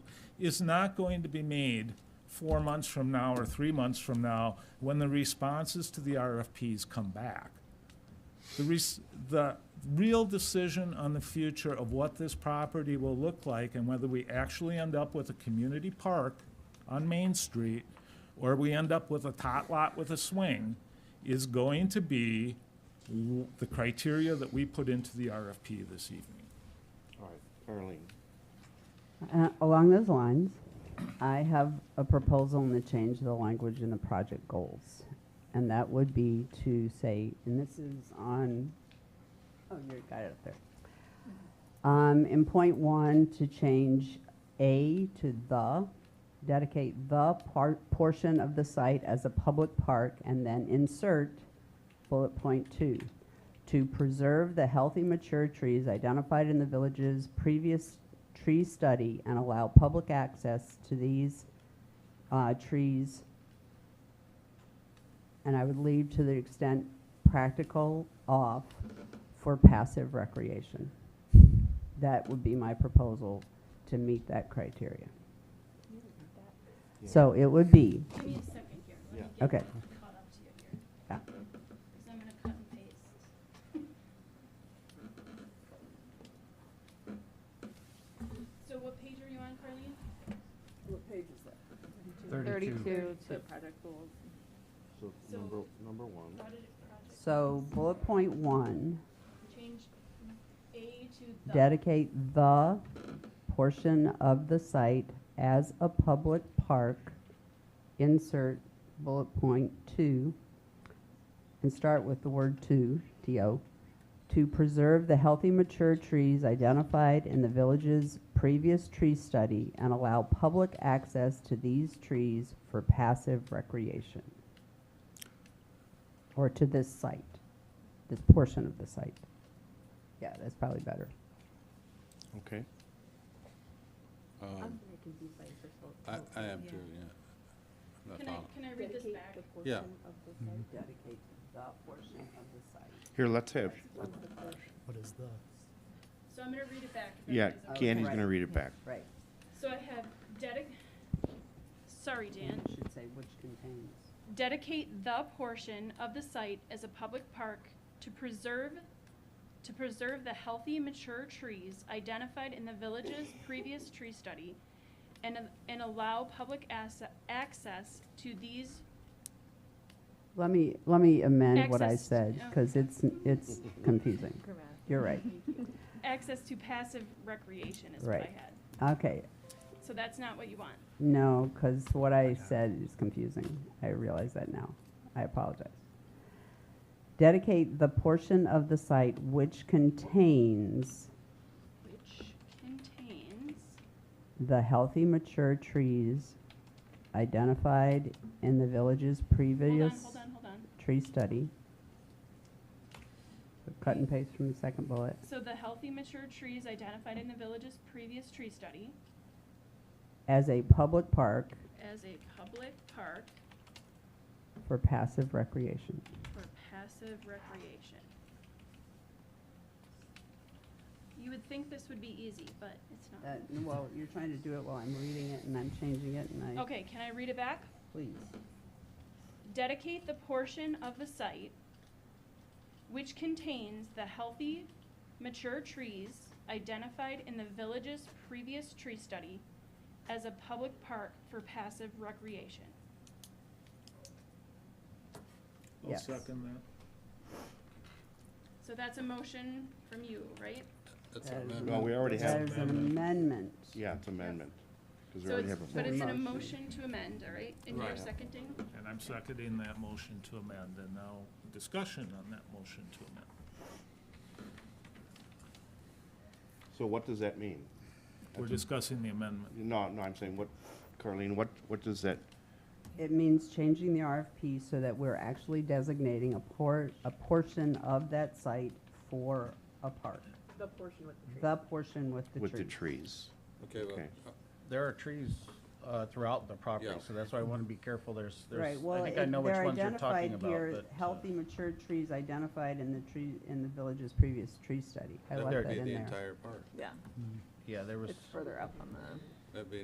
is not going to be made four months from now or three months from now when the responses to the RFPs come back. The, res- the real decision on the future of what this property will look like and whether we actually end up with a community park on Main Street or we end up with a tot lot with a swing is going to be w- the criteria that we put into the RFP this evening. All right, Arlene. Uh, Along those lines, I have a proposal and the change of the language in the project goals. And that would be to say, and this is on, oh, you got it up there. Um, in point one, to change A to the, dedicate the part, portion of the site as a public park, and then insert bullet point two, to preserve the healthy mature trees identified in the village's previous tree study and allow public access to these uh, trees. And I would leave to the extent practical off for passive recreation. That would be my proposal to meet that criteria. Yeah. So it would be, Give me a second here. Let me Yeah. get Okay. Caught up to you here. Yeah. Because I'm gonna cut and paste. So what page are you on, Carleen? What page is that? 32 The to product goals. So So- number, number one, Audit project. so bullet point one, Change A to the. dedicate the portion of the site as a public park, insert bullet point two, and start with the word to, T-O, to preserve the healthy mature trees identified in the village's previous tree study and allow public access to these trees for passive recreation. Or to this site, this portion of the site. Yeah, that's probably better. okay. Um, I, I am too, yeah. I'm not Can I, following. can I read this back? Yeah. Dedicate the portion of the site. Here, let's have, What is the? So I'm gonna read it back. if yeah, everybody's okay. Candy's right. gonna read it back. Right. So I have dedic, sorry, Dan. It should say which contains. dedicate the portion of the site as a public park to preserve, to preserve the healthy mature trees identified in the village's previous tree study and, and allow public ass- access to these, Let me, let me amend what I Access to- said, because it's, it's confusing. You're right. access to passive recreation is what I Right. had. Okay, So that's not what you want. no, because what I said is confusing. I realize that now. I apologize. Dedicate the portion of the site which contains Which contains, the healthy mature trees identified in the village's hold on, previous hold on, hold on. tree study. So Cut and paste from the second bullet. So the healthy mature trees identified in the village's previous tree study As a public park as a public park for passive recreation. for passive recreation. You would think this would be easy, but it's Uh, not. Well, you're trying to do it while I'm reading it and I'm changing it and I, Okay, can I read it back? please. Dedicate the portion of the site which contains the healthy, mature trees identified in the village's previous tree study as a public park for passive recreation. I'll Yes. second that. So that's a motion from you, right? That's That an is amendment. Well, we already That have, is an amendment. yeah, it's amendment, because we So already it's, have a but vote. it's an Motion. motion to amend, all right? And you're Right. seconding? And I'm seconding that motion to amend, and now discussion on that motion to amend. So what does that mean? We're discussing the amendment. No, no, I'm saying, what, Carlene, what, what does that, It means changing the RFP so that we're actually designating a por, a portion of that site for a park. The portion with the tree. The portion with the tree. with the trees? Okay, well, Okay. uh, There are trees uh, throughout the property, Yeah. so that's why I want to be careful. There's, Right, there's, well, I it- think I know which they're ones you're talking identified about, here, but. uh, healthy mature trees identified in the tree, in the village's previous tree study. I that left would that be in the there. entire park. Yeah, Yeah, there was. it's further up on the. That'd be